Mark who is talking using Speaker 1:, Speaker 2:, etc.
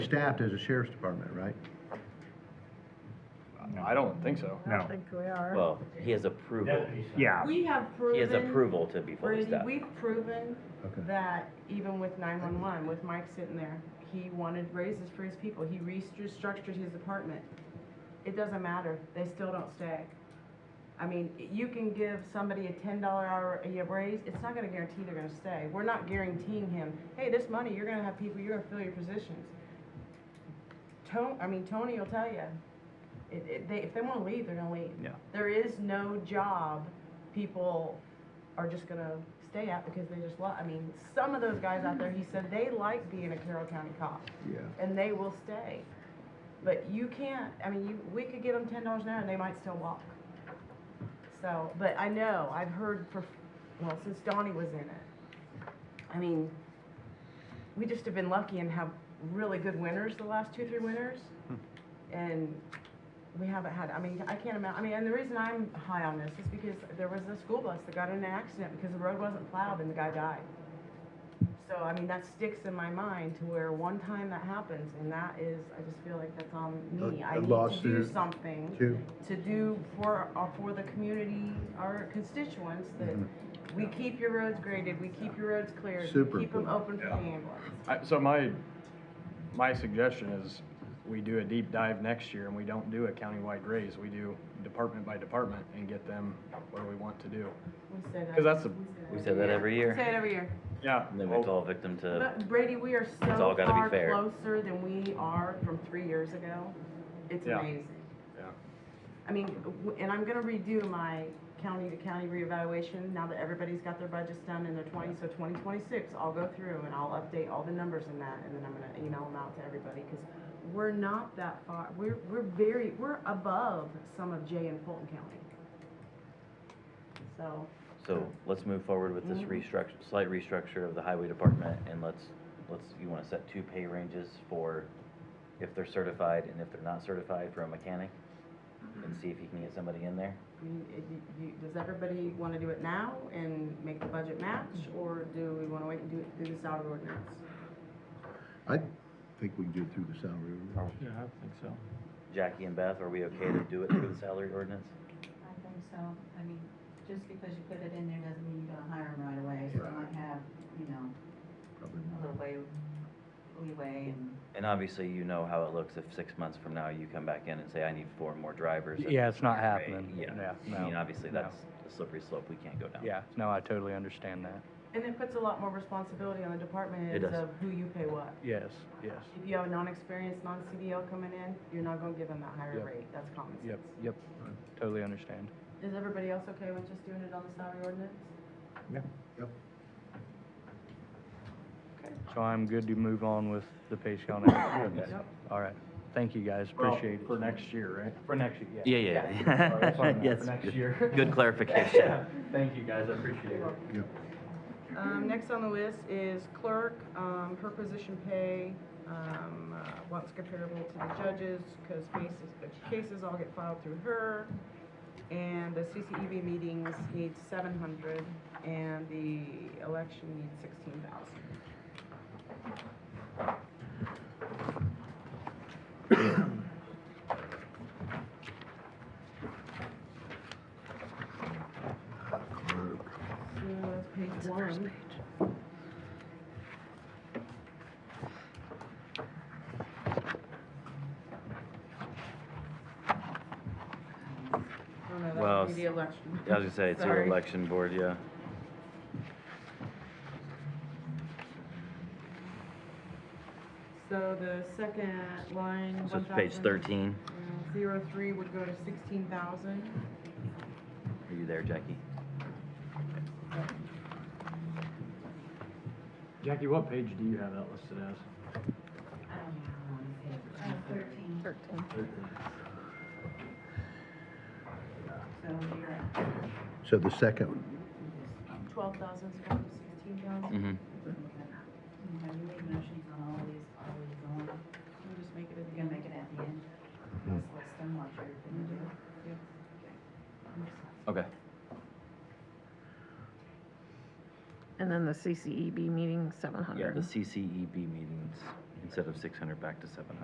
Speaker 1: staffed as a sheriff's department, right?
Speaker 2: I don't think so.
Speaker 3: I
Speaker 4: No.
Speaker 3: don't think we are.
Speaker 5: Well, he has approval,
Speaker 4: Yeah,
Speaker 6: We have
Speaker 5: he
Speaker 6: proven.
Speaker 5: has approval to be fully
Speaker 6: Brady,
Speaker 5: staffed.
Speaker 6: we've proven
Speaker 1: Okay.
Speaker 6: that even with nine-one-one, with Mike sitting there, he wanted raises for his people. He restructured his department. It doesn't matter. They still don't stay. I mean, you can give somebody a ten dollar hour a year raise, it's not gonna guarantee they're gonna stay. We're not guaranteeing him, hey, this money, you're gonna have people, you're gonna fill your positions. Tony, I mean, Tony will tell you, it, it, they, if they wanna leave, they're gonna leave.
Speaker 2: Yeah.
Speaker 6: There is no job people are just gonna stay at because they just love, I mean, some of those guys out there, he said, they like being a Carroll County cop
Speaker 1: Yeah.
Speaker 6: and they will stay. But you can't, I mean, you, we could give them ten dollars an hour and they might still walk. So, but I know, I've heard for, well, since Donnie was in it, I mean, we just have been lucky and have really good winners the last two, three winters.
Speaker 1: Hmm.
Speaker 6: And we haven't had, I mean, I can't imagine, I mean, and the reason I'm high on this is because there was a school bus that got in an accident because the road wasn't plowed and the guy died. So, I mean, that sticks in my mind to where one time that happens, and that is, I just feel like that's on me.
Speaker 1: A- a
Speaker 6: I need to do
Speaker 1: lawsuit.
Speaker 6: something
Speaker 1: Two.
Speaker 6: to do for, uh, for the community, our constituents, that we keep your roads graded, we keep your roads cleared,
Speaker 1: Mm-hmm. Super
Speaker 6: we keep them open for the
Speaker 2: Yeah.
Speaker 6: ambulance.
Speaker 2: I, so my, my suggestion is we do a deep dive next year and we don't do a countywide raise. We do department by department and get them where we want to do.
Speaker 6: We say that.
Speaker 2: 'Cause that's the-
Speaker 6: we say
Speaker 5: We said that every
Speaker 6: We
Speaker 5: year,
Speaker 6: Say it every year.
Speaker 2: Yeah. Oh.
Speaker 5: and then we
Speaker 2: well,
Speaker 5: fall victim to,
Speaker 6: But Brady, we are so
Speaker 5: all gotta be
Speaker 6: far
Speaker 5: fair.
Speaker 6: closer than we are from three years ago. It's
Speaker 2: Yeah.
Speaker 6: amazing.
Speaker 2: Yeah.
Speaker 6: I mean, w- and I'm gonna redo my county to county reevaluation now that everybody's got their budgets done in their twenty, so twenty twenty-six, I'll go through and I'll update all the numbers in that, and then I'm gonna email them out to everybody, cause we're not that far, we're, we're very, we're above some of Jay and Fulton County. So,
Speaker 5: so let's move forward with this
Speaker 6: Mhm.
Speaker 5: restructure, slight restructure of the highway department, and let's, let's, you wanna set two pay ranges for if they're certified and if they're not certified for a mechanic, and see if you can get somebody in there.
Speaker 6: I mean, it- you- you- does everybody wanna do it now and make the budget match, or do we wanna wait and do it through the salary ordinance?
Speaker 1: I think we can do it through the salary. ordinance.
Speaker 5: Yeah, I think so. Jackie and Beth, are we okay to do it through the salary ordinance?
Speaker 7: I think so. I mean, just because you put it in there doesn't mean you're gonna hire them right away. So you might have, you know,
Speaker 1: Probably
Speaker 7: a
Speaker 1: not.
Speaker 7: little way, leeway and.
Speaker 5: And obviously, you know how it looks if six months from now you come back in and say, I need four more drivers. at
Speaker 8: Yeah, it's not
Speaker 5: your rate."
Speaker 8: happening.
Speaker 5: Yeah,
Speaker 8: Yeah,
Speaker 5: I mean,
Speaker 8: no,
Speaker 5: obviously,
Speaker 8: no.
Speaker 5: that's a slippery slope we can't go down.
Speaker 8: Yeah, no, I totally understand that.
Speaker 6: And it puts a lot more responsibility on the department
Speaker 5: It
Speaker 6: heads
Speaker 5: does.
Speaker 6: of who you pay what.
Speaker 8: Yes, yes.
Speaker 6: If you have a non-experienced, non-CDL coming in, you're not gonna give them that higher
Speaker 8: Yep.
Speaker 6: rate, that's common sense.
Speaker 8: Yep, yep. Totally understand.
Speaker 6: Is everybody else okay with just doing it on the salary ordinance?
Speaker 8: So I'm good to move on with the pay scale now.
Speaker 5: Yep.
Speaker 8: All right. Thank you, guys.
Speaker 2: well,
Speaker 8: Appreciate it.
Speaker 2: For next year, right?
Speaker 8: For next year,
Speaker 5: Yeah, yeah,
Speaker 8: Sorry, that's what I
Speaker 5: yeah.
Speaker 8: meant,
Speaker 5: Yes,
Speaker 8: for next
Speaker 5: good-
Speaker 8: year.
Speaker 5: Good clarification.
Speaker 8: Thank you, guys. I appreciate it.
Speaker 6: Um, next on the list is clerk, um, her position pay, um, uh, what's comparable to the judges, cause cases, the cases all get filed through her. And the CCEB meetings need seven hundred, and the election needs sixteen thousand. So Oh, that's page one. Oh, no, that
Speaker 5: Well,
Speaker 6: would be the election.
Speaker 5: I was gonna say, it's your
Speaker 6: Sorry.
Speaker 5: election board, yeah.
Speaker 6: So the second line,
Speaker 5: So
Speaker 6: one
Speaker 5: it's page
Speaker 6: thousand,
Speaker 5: thirteen.
Speaker 6: uh, Zero three would go to sixteen thousand.
Speaker 5: Are you there, Jackie?
Speaker 2: Jackie, what page do you have that listed as?
Speaker 7: I don't know how long it is. Uh, Thirteen. Thirteen. So you're at
Speaker 1: So the second,
Speaker 6: Twelve thousand's going to sixteen thousand.
Speaker 5: Mm-hmm.
Speaker 7: okay. Have you made motions on all of these? Are we going, you're
Speaker 6: We'll just make it at the
Speaker 7: gonna
Speaker 6: end.
Speaker 7: make it at the end? Let's list them, what you're gonna do.
Speaker 6: Yeah.
Speaker 7: Okay.
Speaker 5: Okay.
Speaker 3: And then the E CCEB meeting, seven
Speaker 5: Yeah, the
Speaker 3: hundred.
Speaker 5: CCEB E meetings in instead of six hundred back to seven hundred.